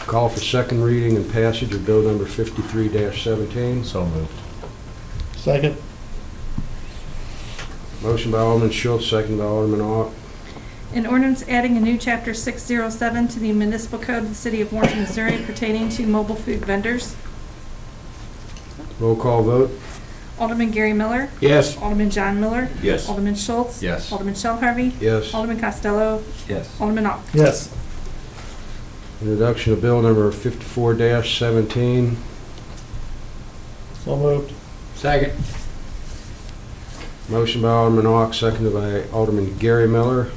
Call for second reading and passage of bill number 53-17. So moved. Second. Motion by Alderman Schultz, second by Alderman Ock. An ordinance adding a new chapter 607 to the municipal code of the city of Warrenton, Missouri pertaining to mobile food vendors. Roll call vote? Alderman Gary Miller. Yes. Alderman John Miller. Yes. Alderman Schultz. Yes. Alderman Shell Harvey. Yes. Alderman Costello. Yes. Alderman Ock. Yes. Introduction of bill number 54-17. So moved. Second. Motion by Alderman Ock, seconded by Alderman Gary Miller.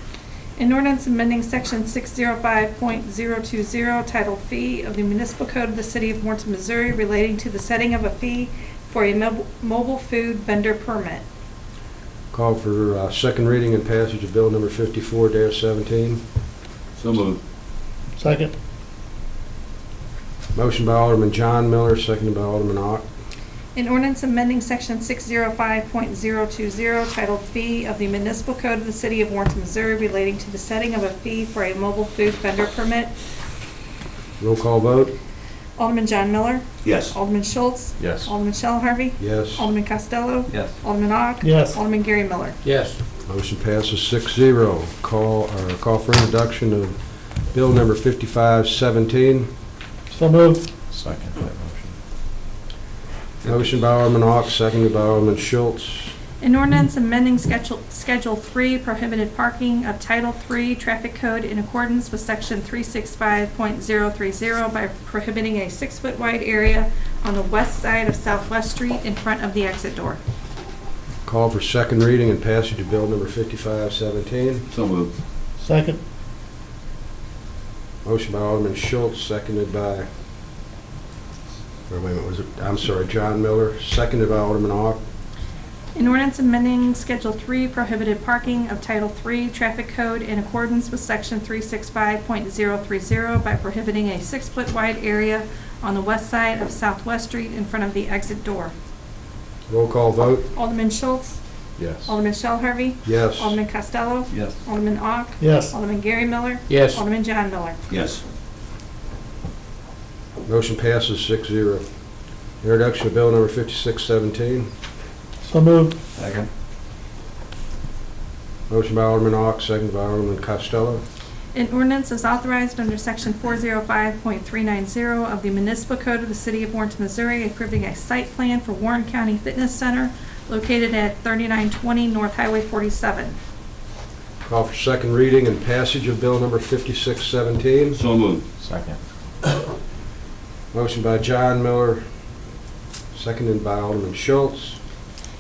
An ordinance amending section 605.020 titled Fee of the Municipal Code of the City of Warrenton, Missouri relating to the setting of a fee for a mob- mobile food vendor permit. Call for uh, second reading and passage of bill number 54-17. So moved. Second. Motion by Alderman John Miller, seconded by Alderman Ock. An ordinance amending section 605.020 oh, titled Fee of the Municipal Code of the City of Warrenton, Missouri relating to the setting of a fee for a mobile food vendor permit. Roll call vote? Alderman John Miller. Yes. Alderman Schultz. Yes. Alderman Shell Harvey. Yes. Alderman Costello. Yes. Alderman Ock. Yes. Alderman Gary Miller. Yes. Motion passes six zero. Call, or call for introduction of bill number 5517. So moved. Second that motion. Motion by Alderman Ock, seconded by Alderman Schultz. An ordinance amending Schedule, Schedule 3 prohibited parking of Title 3 Traffic Code in accordance with Section 365.030 by prohibiting a six-foot wide area on the west side of Southwest Street in front of the exit door. Call for second reading and passage of bill number 5517. So moved. Second. Motion by Alderman Schultz, seconded by, or wait a minute, was it, I'm sorry, John Miller, seconded by Alderman Ock. An ordinance amending Schedule 3 prohibited parking of Title 3 Traffic Code in accordance with Section 365.030 by prohibiting a six-foot wide area on the west side of Southwest Street in front of the exit door. Roll call vote? Alderman Schultz, Yes. Alderman Shell Harvey, Yes. Alderman Costello, Yes. Alderman Ock, Yes. Alderman Gary Miller, Yes. Alderman John Miller. Yes. Motion passes six zero. Introduction of bill number 5617. So moved. Second. Motion by Alderman Ock, seconded by Alderman Costello. An ordinance is authorized under Section 405.390 of the Municipal Code of the City of Warrenton, Missouri, approving a site plan for Warren County Fitness Center located at 3920 North Highway 47. Call for second reading and passage of bill number 5617. So moved. Second. Motion by John Miller, seconded by Alderman Schultz.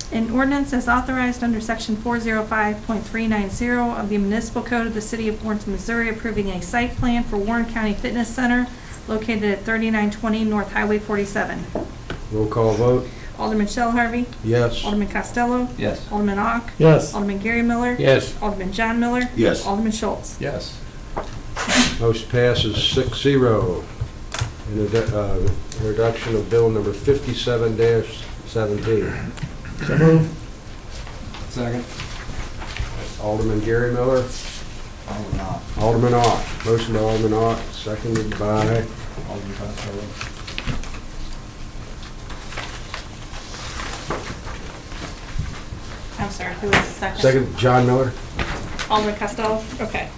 An ordinance is authorized under Section 405.390 of the Municipal Code of the City of Warrenton, Missouri, approving a site plan for Warren County Fitness Center located at 3920 North Highway 47. Roll call vote. Alderman Shell Harvey, Yes. Alderman Costello, Yes. Alderman Ock, Yes. Alderman Gary Miller, Yes. Alderman John Miller. Yes. Alderman Schultz. Yes. Motion passes six zero. uh, Introduction of bill number 57-17. So moved. Second. Alderman Gary Miller, Alderman Ock. Alderman Ock. Motion by Alderman Ock, seconded by Alderman Costello. I'm sorry, who was the second? Second, John Miller. Alderman Costello, okay.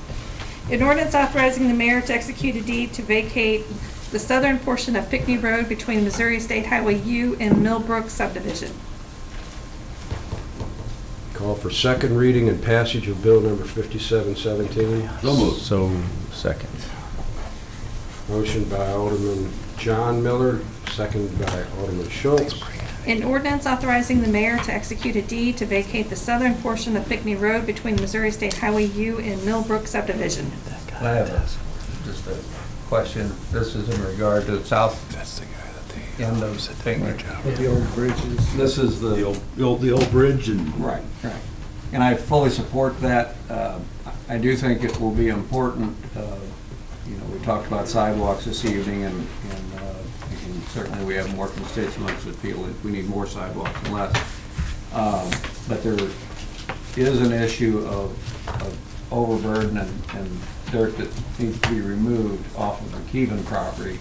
An ordinance authorizing the mayor to execute a deed to vacate the southern portion of Pickney Road between Missouri State Highway U and Millbrook subdivision. Call for second reading and passage of bill number 5717. So moved. So, second. Motion by Alderman John Miller, second by Alderman Schultz. An ordinance authorizing the mayor to execute a deed to vacate the southern portion of Pickney Road between Missouri State Highway U and Millbrook subdivision. I have a- just a question. This is in regard to the south end of Pinckney. The old bridges. This is The the, old, the old- the old bridge and. right, right. And I fully support that. Uh, I do think it will be important, uh, you know, we talked about sidewalks this evening and and, uh, and certainly we have more constituents that feel that we need more sidewalks and less. Um, But there is an issue of of overburden and and dirt that needs to be removed off of the Keven property.